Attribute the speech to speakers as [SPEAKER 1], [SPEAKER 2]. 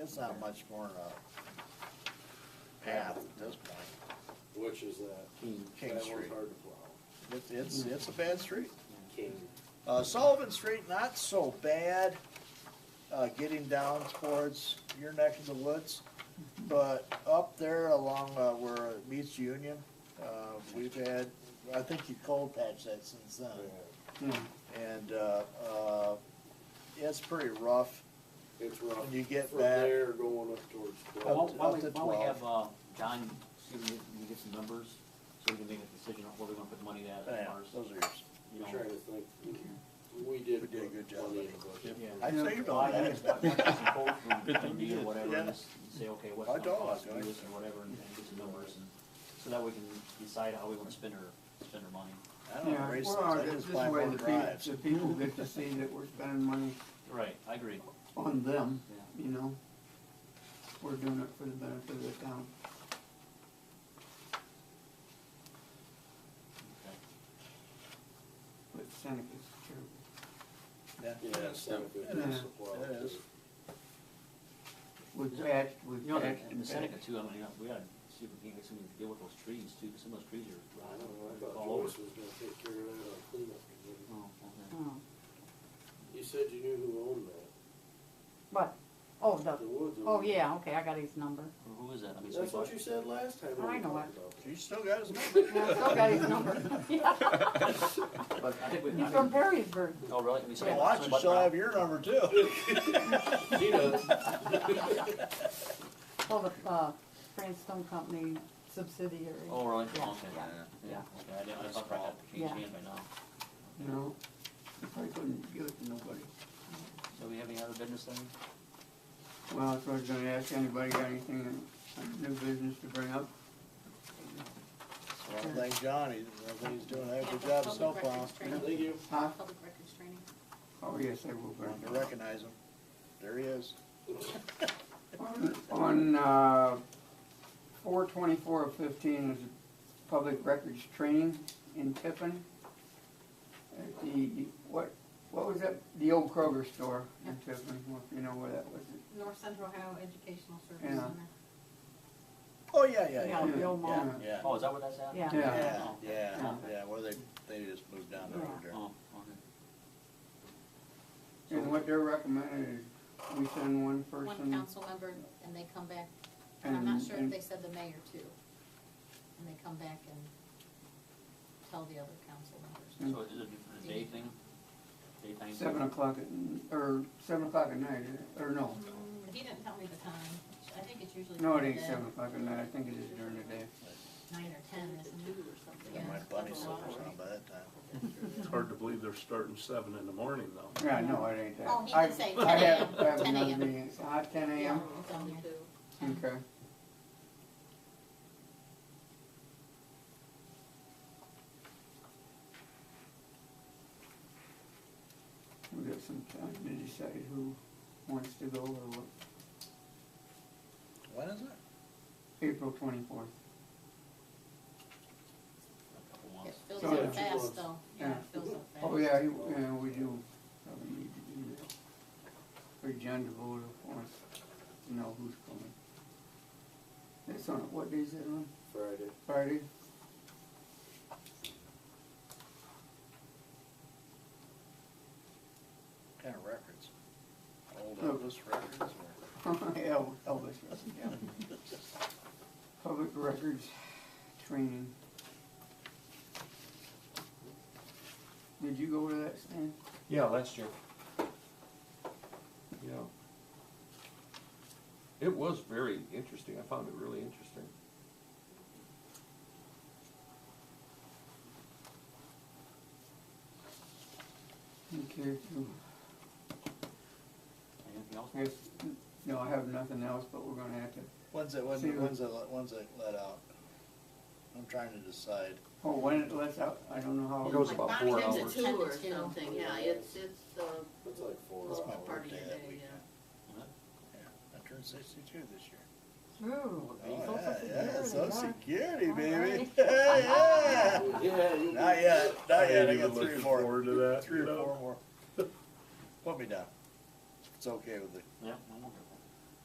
[SPEAKER 1] it's not much more of a path at this point.
[SPEAKER 2] Which is that?
[SPEAKER 1] King, King
[SPEAKER 2] That one's
[SPEAKER 1] Street.
[SPEAKER 2] hard to plow.
[SPEAKER 1] It's, it's, it's a bad street.
[SPEAKER 2] King.
[SPEAKER 1] Uh, Sullivan Street, not so bad, uh, getting down towards your neck of the woods. But up there along, uh, where it meets Union, uh, we've had, I think you cold patched that since then. And, uh, uh, it's pretty rough.
[SPEAKER 2] It's rough.
[SPEAKER 1] When you get
[SPEAKER 2] From
[SPEAKER 1] back-
[SPEAKER 2] there going up towards
[SPEAKER 1] Up
[SPEAKER 3] Why
[SPEAKER 2] twelve.
[SPEAKER 1] to-
[SPEAKER 3] why
[SPEAKER 1] up
[SPEAKER 3] we,
[SPEAKER 1] to
[SPEAKER 3] why we
[SPEAKER 1] 12.
[SPEAKER 3] have, uh, John, see if we can- we can get some numbers, so we can make a decision on where we're gonna put the money at as
[SPEAKER 1] Yeah,
[SPEAKER 3] far as,
[SPEAKER 1] those are yours.
[SPEAKER 3] you
[SPEAKER 2] I'm
[SPEAKER 3] know.
[SPEAKER 2] trying to think. We did.
[SPEAKER 1] We did a good job.
[SPEAKER 2] put money in the budget.
[SPEAKER 3] Yeah.
[SPEAKER 1] I saved all
[SPEAKER 3] Well, I
[SPEAKER 1] that.
[SPEAKER 3] think it's like- like some quotes from
[SPEAKER 4] Good thing
[SPEAKER 3] IMD
[SPEAKER 4] you
[SPEAKER 3] or
[SPEAKER 4] did.
[SPEAKER 3] whatever,
[SPEAKER 1] Yeah.
[SPEAKER 3] and just say, okay, what's
[SPEAKER 1] I
[SPEAKER 3] it gonna
[SPEAKER 1] don't,
[SPEAKER 3] cost to
[SPEAKER 1] I-
[SPEAKER 3] do this or whatever, and and get some numbers, and, so that we can decide how we wanna spend our, spend our money.
[SPEAKER 1] I
[SPEAKER 5] Yeah,
[SPEAKER 1] don't race things,
[SPEAKER 5] or
[SPEAKER 1] I
[SPEAKER 5] this
[SPEAKER 1] just buy
[SPEAKER 5] way
[SPEAKER 1] more
[SPEAKER 5] the people,
[SPEAKER 1] drives.
[SPEAKER 5] the people get to see that we're spending money
[SPEAKER 3] Right, I agree,
[SPEAKER 5] on them,
[SPEAKER 3] yeah.
[SPEAKER 5] you know? We're doing it for the benefit of the town.
[SPEAKER 3] Okay.
[SPEAKER 5] But Seneca's true.
[SPEAKER 1] Yeah.
[SPEAKER 2] Yeah, Seneca
[SPEAKER 1] It
[SPEAKER 2] did
[SPEAKER 5] is.
[SPEAKER 2] the plow,
[SPEAKER 1] It is.
[SPEAKER 2] too.
[SPEAKER 5] We've patched, we've
[SPEAKER 3] You know,
[SPEAKER 5] patched.
[SPEAKER 3] in the
[SPEAKER 5] and
[SPEAKER 3] Seneca
[SPEAKER 5] patched.
[SPEAKER 3] too, I mean, you know, we gotta see if we can get something to deal with those trees too, 'cause some of those trees are
[SPEAKER 2] I don't know,
[SPEAKER 3] rotting
[SPEAKER 2] I thought
[SPEAKER 3] all over.
[SPEAKER 2] Joyce was gonna take care of that on cleanup.
[SPEAKER 3] Oh, okay.
[SPEAKER 6] Oh,
[SPEAKER 2] You said you knew who owned that.
[SPEAKER 6] But, oh, the,
[SPEAKER 2] The woods.
[SPEAKER 6] oh,
[SPEAKER 2] owned it.
[SPEAKER 6] yeah, okay, I got his number.
[SPEAKER 3] Who- Who is that? I mean,
[SPEAKER 2] That's
[SPEAKER 3] Sweetwater?
[SPEAKER 2] what you said last time. when
[SPEAKER 6] I
[SPEAKER 2] we
[SPEAKER 6] know
[SPEAKER 2] talked
[SPEAKER 6] it.
[SPEAKER 2] about that.
[SPEAKER 1] You still got his number?
[SPEAKER 6] Yeah, I still got his number. Yeah,
[SPEAKER 3] But I think we,
[SPEAKER 6] He's
[SPEAKER 3] I
[SPEAKER 6] from
[SPEAKER 3] mean,
[SPEAKER 6] Perrysburg.
[SPEAKER 3] oh, really? I mean,
[SPEAKER 1] Well,
[SPEAKER 3] somebody-
[SPEAKER 1] watch, you
[SPEAKER 3] somebody-
[SPEAKER 1] still have your number too.
[SPEAKER 2] She does.
[SPEAKER 6] Well, the, uh, France Stone Company subsidiary.
[SPEAKER 3] Oh, really?
[SPEAKER 6] Yeah,
[SPEAKER 3] Okay.
[SPEAKER 6] yeah, yeah.
[SPEAKER 3] Okay, I didn't, I thought I had changed
[SPEAKER 6] Yeah.
[SPEAKER 3] hands by now.
[SPEAKER 5] No, we probably couldn't give it to nobody.
[SPEAKER 3] So we have any other business then?
[SPEAKER 5] Well, if I was gonna ask anybody, got anything, on new business to bring up?
[SPEAKER 3] So,
[SPEAKER 1] Well, Thank John, he's, I think he's doing a heck of a job snowplow.
[SPEAKER 2] Thank you.
[SPEAKER 5] Huh?
[SPEAKER 7] Public records training.
[SPEAKER 5] Oh, yes, I will bring
[SPEAKER 1] Wanted to
[SPEAKER 5] it up.
[SPEAKER 1] recognize him. There he is.
[SPEAKER 5] On- On, uh, four twenty-four of fifteen is public records training in Tiffin. At the, what, what was that, the old Kroger store in Tiffin, if you know where that was.
[SPEAKER 7] North Central Ohio Educational Service
[SPEAKER 5] Yeah.
[SPEAKER 7] Center.
[SPEAKER 1] Oh, yeah, yeah,
[SPEAKER 6] Yeah,
[SPEAKER 1] yeah,
[SPEAKER 6] the old mall.
[SPEAKER 5] Yeah.
[SPEAKER 1] yeah.
[SPEAKER 3] Oh, is that where that's at?
[SPEAKER 6] Yeah.
[SPEAKER 1] Yeah,
[SPEAKER 3] Oh,
[SPEAKER 1] yeah, yeah, well, they, they just moved down there. over there.
[SPEAKER 3] Oh, okay.
[SPEAKER 5] And what they're recommending is we send one person.
[SPEAKER 7] One council member, and they come back, and I'm not
[SPEAKER 5] and-
[SPEAKER 7] sure if
[SPEAKER 5] and-
[SPEAKER 7] they said the mayor too. And they come back and tell the other council members.
[SPEAKER 3] So is it a day thing? Day thing?
[SPEAKER 5] Seven o'clock at, or seven o'clock at night, is it? or no,
[SPEAKER 7] He didn't tell me the time, I think it's usually.
[SPEAKER 5] no, it ain't
[SPEAKER 7] during the
[SPEAKER 5] seven o'clock at night, I think it is during the day.
[SPEAKER 7] Nine or ten, isn't it, or something?
[SPEAKER 1] And
[SPEAKER 7] Yeah.
[SPEAKER 1] My bunny slippers on by that time.
[SPEAKER 4] It's hard to believe they're starting seven in the morning though.
[SPEAKER 5] Yeah, no, it ain't that.
[SPEAKER 7] Oh, he
[SPEAKER 5] I-
[SPEAKER 7] did say
[SPEAKER 5] I
[SPEAKER 7] 10
[SPEAKER 5] have,
[SPEAKER 7] a.m.,
[SPEAKER 5] I have
[SPEAKER 7] 10
[SPEAKER 5] another
[SPEAKER 7] a.m.
[SPEAKER 5] meeting, uh, ten
[SPEAKER 7] Yeah,
[SPEAKER 5] AM,
[SPEAKER 7] it's on there.
[SPEAKER 5] okay. We got some time to decide who wants to go or what,
[SPEAKER 1] When is it?
[SPEAKER 5] April twenty-fourth,
[SPEAKER 3] A couple
[SPEAKER 7] It
[SPEAKER 3] months.
[SPEAKER 7] fills
[SPEAKER 5] So
[SPEAKER 7] up
[SPEAKER 5] it's-
[SPEAKER 7] fast though, yeah, it fills up fast.
[SPEAKER 5] oh yeah, you- yeah, we do probably need to do that. For John DeVoto wants to know who's coming. That's on, what day is it on,
[SPEAKER 2] Friday.
[SPEAKER 5] Friday?
[SPEAKER 1] Kind of records. Old
[SPEAKER 5] Look.
[SPEAKER 1] Elvis records or?
[SPEAKER 5] Yeah, Elvis, yeah. Public records training. Did you go to that, Stan?
[SPEAKER 8] Yeah, last year. Yeah. It was very interesting. I found it really interesting.
[SPEAKER 5] You care to?
[SPEAKER 3] Anything else?
[SPEAKER 5] Yes, no, I have nothing else, but we're gonna have to,
[SPEAKER 1] When's it, when's
[SPEAKER 5] See
[SPEAKER 1] it,
[SPEAKER 5] you.
[SPEAKER 1] when's it, let- when's it let out? I'm trying to decide.
[SPEAKER 5] oh, when it lets out, I don't know how.
[SPEAKER 8] It goes about
[SPEAKER 7] Bonnie
[SPEAKER 8] four
[SPEAKER 7] sends it
[SPEAKER 8] hours.
[SPEAKER 7] to
[SPEAKER 9] two
[SPEAKER 7] Send it
[SPEAKER 9] or
[SPEAKER 7] to you.
[SPEAKER 9] something, yeah, it's, it's, uh,
[SPEAKER 2] It's like four
[SPEAKER 1] That's my
[SPEAKER 2] hours.
[SPEAKER 1] birthday that
[SPEAKER 9] yeah,
[SPEAKER 1] weekend.
[SPEAKER 3] yeah.
[SPEAKER 1] Yeah, I turned sixty-two this year.
[SPEAKER 6] Ooh,
[SPEAKER 1] Oh,
[SPEAKER 6] Social
[SPEAKER 1] yeah, yeah,
[SPEAKER 6] Security,
[SPEAKER 1] social
[SPEAKER 6] huh?
[SPEAKER 1] security,
[SPEAKER 6] All
[SPEAKER 1] baby.
[SPEAKER 6] right.
[SPEAKER 1] Yeah.
[SPEAKER 2] Yeah, you'll be.
[SPEAKER 1] Not yet, not yet, I got
[SPEAKER 4] even
[SPEAKER 1] three or
[SPEAKER 4] looking
[SPEAKER 1] four,
[SPEAKER 4] Forward to that,
[SPEAKER 1] three
[SPEAKER 4] you
[SPEAKER 1] or
[SPEAKER 4] know?
[SPEAKER 1] four more. Put me down. It's okay with it.
[SPEAKER 3] Yeah, I'm okay with